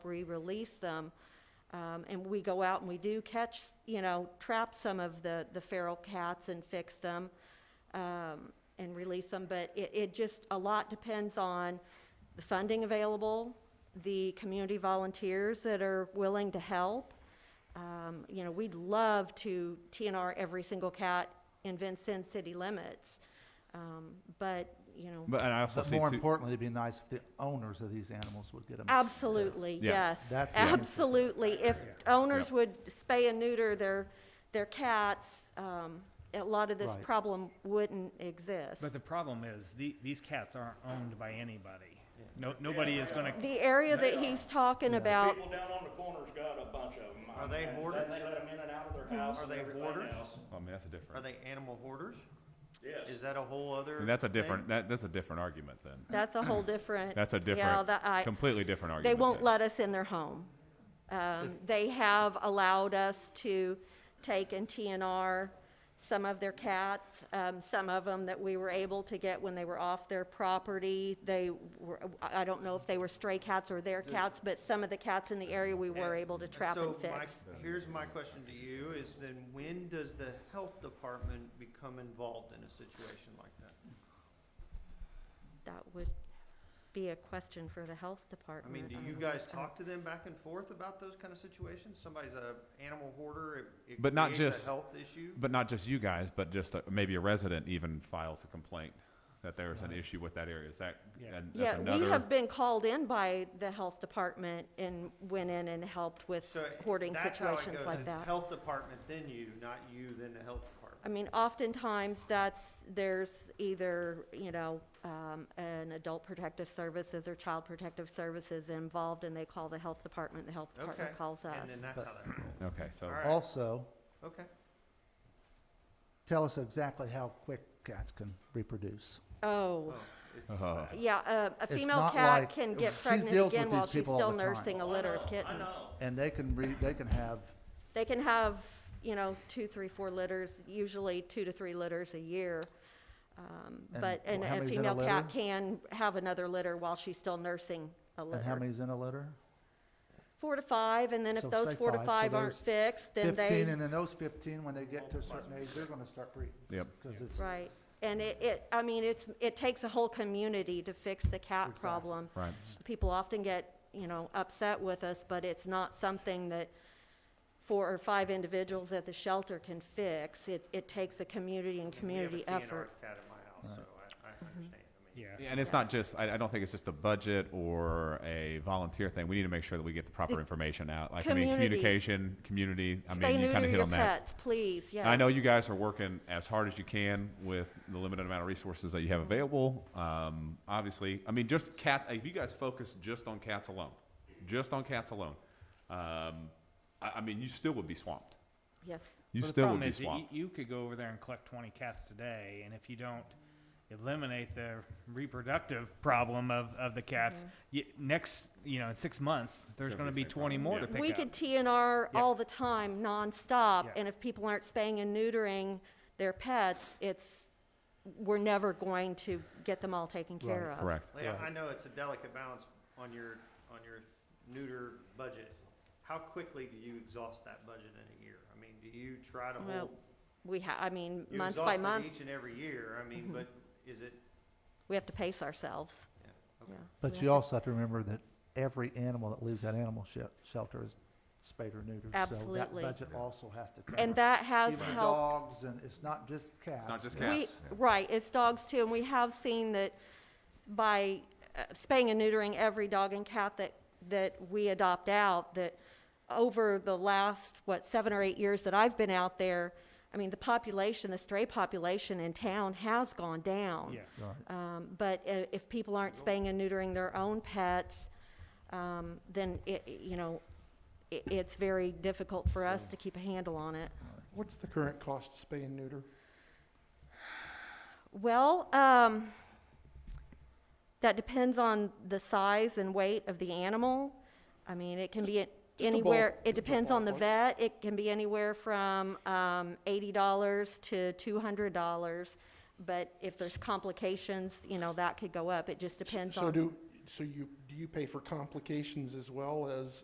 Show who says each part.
Speaker 1: we release them, um, and we go out and we do catch, you know, trap some of the, the feral cats and fix them, um, and release them, but it, it just, a lot depends on the funding available, the community volunteers that are willing to help. Um, you know, we'd love to TNR every single cat in Vincent city limits, um, but, you know,
Speaker 2: But and I also
Speaker 3: But
Speaker 2: see
Speaker 3: more
Speaker 2: too,
Speaker 3: importantly, it'd be nice if the owners of these animals would get them.
Speaker 1: Absolutely,
Speaker 2: Yeah.
Speaker 1: yes.
Speaker 3: That's the answer.
Speaker 1: Absolutely. If owners
Speaker 2: Yeah.
Speaker 1: would spay and neuter their, their cats, um, a lot of this
Speaker 3: Right.
Speaker 1: problem wouldn't exist.
Speaker 4: But the problem is, the, these cats aren't owned by anybody. No, nobody is gonna,
Speaker 1: The area that he's talking about,
Speaker 5: People down on the corner's got a bunch of them.
Speaker 6: Are they
Speaker 5: And
Speaker 6: hoarders?
Speaker 5: They let them in and out of their house
Speaker 6: Are
Speaker 5: and
Speaker 6: they
Speaker 5: everything
Speaker 6: hoarders?
Speaker 5: else.
Speaker 2: I mean, Oh, that's a
Speaker 6: Are
Speaker 2: different,
Speaker 6: they animal hoarders? Is
Speaker 5: Yes,
Speaker 6: that a whole
Speaker 2: I
Speaker 6: other?
Speaker 2: mean, that's a
Speaker 6: thing?
Speaker 2: different, that, that's a different argument then.
Speaker 1: that's a whole different.
Speaker 2: That's a
Speaker 1: Yeah,
Speaker 2: different,
Speaker 1: that I,
Speaker 2: completely different
Speaker 1: they
Speaker 2: argument.
Speaker 1: won't
Speaker 2: then.
Speaker 1: let us in their home. Um, they have allowed us to take and TNR some of their cats, um, some of them that we were able to get when they were off their property. They were, I I don't know if they were stray cats or their cats, but some of the cats in the area we were able to trap and
Speaker 6: So my-
Speaker 1: fix.
Speaker 6: Here's my question to you, is then when does the health department become involved in a situation like that?
Speaker 1: That would be a question for the health
Speaker 6: I
Speaker 1: department.
Speaker 6: mean, do you
Speaker 1: Um,
Speaker 6: guys talk to them back and forth about those kind of situations? Somebody's a animal hoarder, it, it
Speaker 2: But not
Speaker 6: creates a
Speaker 2: just-
Speaker 6: health issue?
Speaker 2: But not just you guys, but just uh, maybe a resident even files a complaint that there's an issue with that area. Is that,
Speaker 4: Yeah.
Speaker 2: and that's
Speaker 1: Yeah, we have
Speaker 2: another,
Speaker 1: been called in by the health department and went in and helped with
Speaker 6: So
Speaker 1: hoarding
Speaker 6: that's how it
Speaker 1: situations
Speaker 6: goes.
Speaker 1: like
Speaker 6: It's
Speaker 1: that.
Speaker 6: Health department, then you, not you, then the health department.
Speaker 1: I mean, oftentimes that's, there's either, you know, um, an adult protective services or child protective services involved and they call the health department, the health
Speaker 6: Okay.
Speaker 1: department calls us.
Speaker 6: And then that's how that rolls.
Speaker 2: okay, so,
Speaker 6: All right.
Speaker 3: Also,
Speaker 6: Okay.
Speaker 3: tell us exactly how quick cats can reproduce.
Speaker 1: Oh,
Speaker 6: Well, it's-
Speaker 2: uh,
Speaker 1: yeah, a, a
Speaker 3: It's
Speaker 1: female
Speaker 3: not
Speaker 1: cat
Speaker 3: like-
Speaker 1: can get
Speaker 3: she
Speaker 1: pregnant
Speaker 3: deals with
Speaker 1: again
Speaker 3: these
Speaker 1: while she's
Speaker 3: people all
Speaker 1: still
Speaker 3: the time.
Speaker 1: nursing
Speaker 6: Oh,
Speaker 1: a litter of kittens.
Speaker 3: And they can re, they can have,
Speaker 1: They can have, you know, two, three, four litters, usually two to three litters a year. Um,
Speaker 3: And
Speaker 1: But, and
Speaker 3: how
Speaker 1: a
Speaker 3: many's in a
Speaker 1: female cat
Speaker 3: litter?
Speaker 1: can have another litter while she's still nursing a litter.
Speaker 3: and how many's in a litter?
Speaker 1: four to five, and then if
Speaker 3: So
Speaker 1: those
Speaker 3: say
Speaker 1: four to
Speaker 3: five, so
Speaker 1: five aren't
Speaker 3: there's
Speaker 1: fixed, then
Speaker 3: Fifteen,
Speaker 1: they,
Speaker 3: and then those fifteen, when they get to a certain age, they're gonna start breeding.
Speaker 2: Yep.
Speaker 3: Cause it's,
Speaker 1: right. And it, it, I mean, it's, it takes a whole community to fix the cat problem.
Speaker 2: right.
Speaker 1: People often get, you know, upset with us, but it's not something that four or five individuals at the shelter can fix. It, it takes a community and community effort.
Speaker 6: We have a TNR cat at my house, so I, I understand. I mean,
Speaker 4: yeah.
Speaker 2: Yeah, And it's not just, I, I don't think it's just a budget or a volunteer thing. We need to make sure that we get the proper information out. Like, I mean,
Speaker 1: Community.
Speaker 2: communication, community, I
Speaker 1: Spay
Speaker 2: mean, you kind
Speaker 1: neuter
Speaker 2: of hit
Speaker 1: your
Speaker 2: on that.
Speaker 1: pets, please, yes.
Speaker 2: And I know you guys are working as hard as you can with the limited amount of resources that you have available. Um, obviously, I mean, just cats. If you guys focus just on cats alone, just on cats alone, um, I, I mean, you still would be swamped.
Speaker 1: Yes,
Speaker 2: You
Speaker 4: Well, the
Speaker 2: still would
Speaker 4: problem
Speaker 2: be
Speaker 4: is, that you,
Speaker 2: swamped.
Speaker 4: you could go over there and collect twenty cats today, and if you don't eliminate the reproductive problem of, of the cats,
Speaker 1: Mm-hmm.
Speaker 4: you, next, you know, in six months, there's
Speaker 2: It's
Speaker 4: gonna
Speaker 2: gonna
Speaker 4: be
Speaker 2: be the same
Speaker 4: twenty
Speaker 2: problem,
Speaker 4: more
Speaker 2: yeah.
Speaker 4: to pick up.
Speaker 1: We could TNR
Speaker 4: Yeah.
Speaker 1: all the time, nonstop,
Speaker 4: Yeah.
Speaker 1: and if people aren't spaying and neutering their pets, it's, we're never going to get them all taken care of.
Speaker 4: uh,
Speaker 2: Correct.
Speaker 6: Leah,
Speaker 3: Right.
Speaker 6: I know it's a delicate balance on your, on your neuter budget. How quickly do you exhaust that budget in a year? I mean, do you try to
Speaker 1: Well,
Speaker 6: hold?
Speaker 1: we ha, I mean,
Speaker 6: you
Speaker 1: month by
Speaker 6: exhaust it
Speaker 1: month,
Speaker 6: Each and every year, I mean, but is it,
Speaker 1: we have to pace ourselves,
Speaker 6: yeah,
Speaker 1: yeah.
Speaker 6: okay.
Speaker 1: We
Speaker 3: but
Speaker 1: have
Speaker 3: you
Speaker 1: to-
Speaker 3: also have to remember that every animal that leaves that animal shel- shelter is spayed or neutered. So
Speaker 1: Absolutely.
Speaker 3: that budget also has to cover.
Speaker 1: And that has
Speaker 3: Even
Speaker 1: helped.
Speaker 3: Dogs, and it's not just cats.
Speaker 2: It's not just
Speaker 1: We,
Speaker 2: cats.
Speaker 1: right, it's dogs too, and we have seen that by uh, spaying and neutering every dog and cat that, that we adopt out, that over the last, what, seven or eight years that I've been out there, I mean, the population, the stray population in town has gone down.
Speaker 4: Yeah.
Speaker 3: Right.
Speaker 1: Um, but i- if people aren't spaying and neutering their own pets, um, then it, you know, it, it's very difficult for us to keep a handle on it.
Speaker 7: What's the current cost to spay and neuter?
Speaker 1: Well, um, that depends on the size and weight of the animal. I mean, it can be
Speaker 7: a
Speaker 1: anywhere,
Speaker 7: ball-
Speaker 1: it
Speaker 7: just a
Speaker 1: depends on the
Speaker 7: ballpark.
Speaker 1: vet, it can be anywhere from, um, eighty dollars to two hundred dollars. But if there's complications, you know, that could go up, it just depends
Speaker 7: So
Speaker 1: on,
Speaker 7: do, so you, do you pay for complications as well as